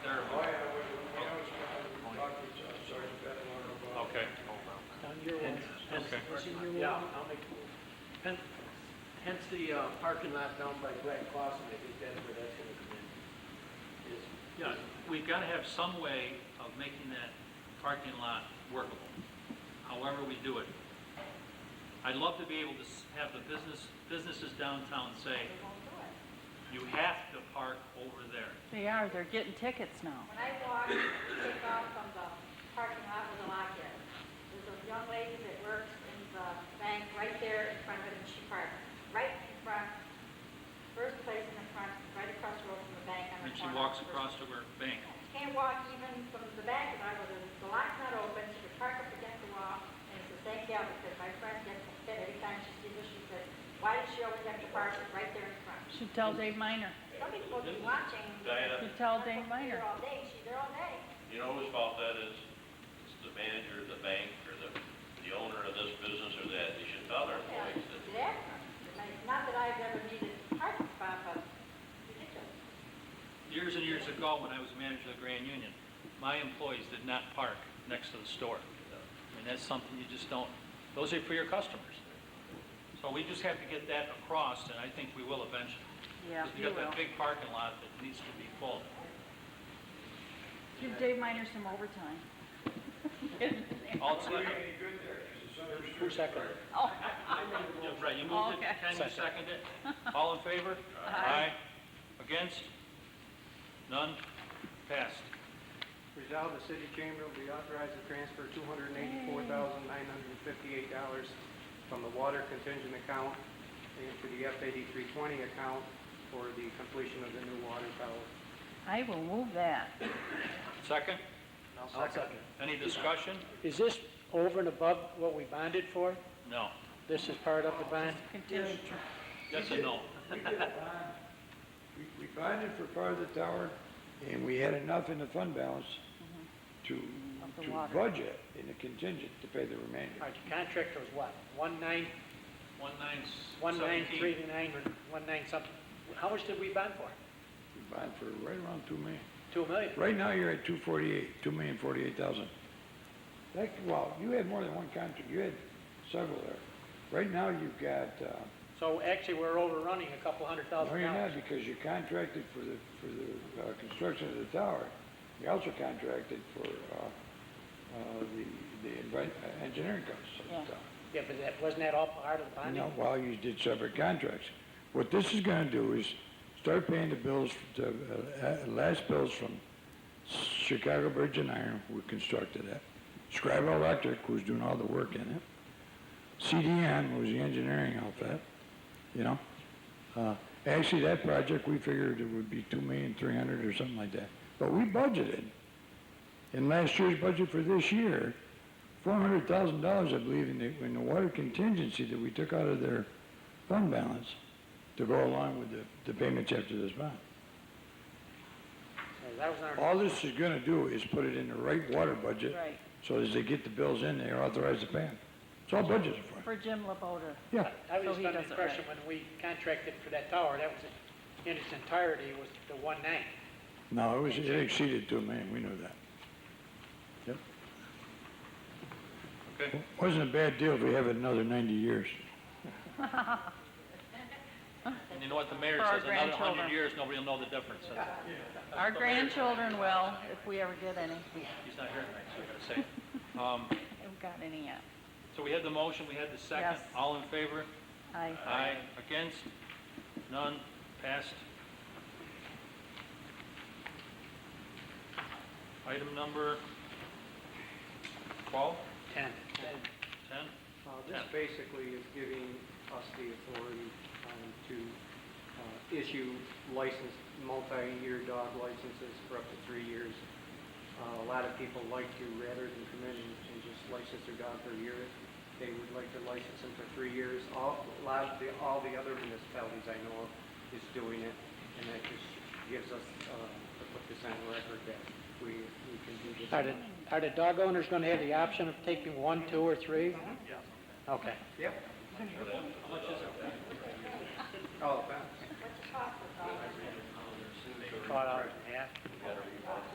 Yeah, I'll, I'll make the motion. Hence, hence the uh, parking lot down by Black Clawson, I think that's where that's gonna come in. Is, You know, we've got to have some way of making that parking lot workable, however we do it. I'd love to be able to s- have the business, businesses downtown say, They won't do it. you have to park over there. They are, they're getting tickets now. When I walk, take off from the parking lot with a locker, there's a young lady that works in the bank right there in front of it, and she parks right in front, first place in the front, right across the road from the bank on And the she corner. walks across to her bank. Can't walk even from the back of the where the- the lock's not open, she could park up against the wall, and it's the same gal because my friend gets upset every time she sees her, she says, why does she always have to park right there in front? Should tell Dave Minor. Somebody's supposed to be watching. Diana, Should tell They're Dave Minor. all day, she's there all day. you know whose fault that is? It's the manager of the bank or the, the owner of this business or that. They should tell their employees that Yeah, Like, not that I've ever needed a parking spot, but ridiculous. Years and years ago, when I was manager of the Grand Union, my employees did not park next to the store. I mean, that's something you just don't, those are for your customers. So we just have to get that across, and I think we will eventually. Yeah, Because he you got will. that big parking lot that needs to be full. Give Dave Minor some overtime. Get him in there. All it's like- who seconded? Oh, I made the Yeah, motion. Right, you moved it, Okay. Ken, you seconded it. All in favor? Aye. Against? None? Passed. Resolved, the city chamber will be authorized to transfer two hundred and eighty-four thousand, nine hundred and fifty-eight dollars from the water contingent account into the F eighty-three twenty account for the completion of the new water tower. I will move that. Second? I'll second. Any discussion? Is this over and above what we bonded for? No. This is part of the bond? Contingent. That's a no. We did a bond. We- We bonded for part of the tower, and we had enough in the fund balance to, Of the to water. budget in the contingent to pay the remainder. All right, the contract was what, one nine, One nine s- one nine three 17. nine, or one nine something? How much did we bond for? We bonded for right around two million. Two million? Right now, you're at two forty-eight, two million forty-eight thousand. That, well, you had more than one contract, you had several there. Right now, you've got, uh, So actually, we're overrunning a couple hundred No, thousand you're not, dollars. because you contracted for the, for the uh, construction of the tower. You also contracted for uh, uh, the, the envi- uh, engineering costs of Yeah. the tower. Yeah, but that, wasn't that all part of the You bonding? know, while you did separate contracts. What this is gonna do is start paying the bills, the uh, uh, last bills from Chicago Bridge and Iron, who constructed it. Scribe Electric, who's doing all the work in it. CDN was the engineering outfit, you know? Uh, Actually, that project, we figured it would be two million, three hundred or something like that. But we budgeted, in last year's budget for this year, four hundred thousand dollars, I believe, in the, in the water contingency that we took out of their fund balance to go along with the, the payments after this bond. So That was our, All this is gonna do is put it in the right water budget, Right, so as they get the bills in, they're authorized to pay them. It's all budgeted for. for Jim LaBoda. Yeah, I So was he under the does it impression when we contracted for that tower, that was, in its entirety, was the one nine. no, it was, it exceeded two million, we knew that. Okay. Wasn't a bad deal if we have it another ninety years. And you know what the mayor For our says, another grandchildren. hundred years, nobody will know the difference. That's it. Our grandchildren will, if we ever get any. We He's not here tonight, so I gotta say. it. Um, haven't got any yet. so we had the motion, we had the second. Yes. All in favor? I, Aye. Against? None? Passed. Item number 12, Ten. 10? Uh, This Yeah. basically is giving us the authority um, to uh, issue license, multi-year dog licenses for up to three years. Uh, A lot of people like to, rather than come in and and just license their dog for a year, they would like to license them for three years. All, a lot of the, all the other municipalities I know of is doing it, and that just gives us, uh, to put this on record, that we we can do this. Are the, are the dog owners gonna have the option of taking one, two, or three? Okay. Yep. Oh, that's... Oh, What's the cost of all this? Caught out in half. you gotta read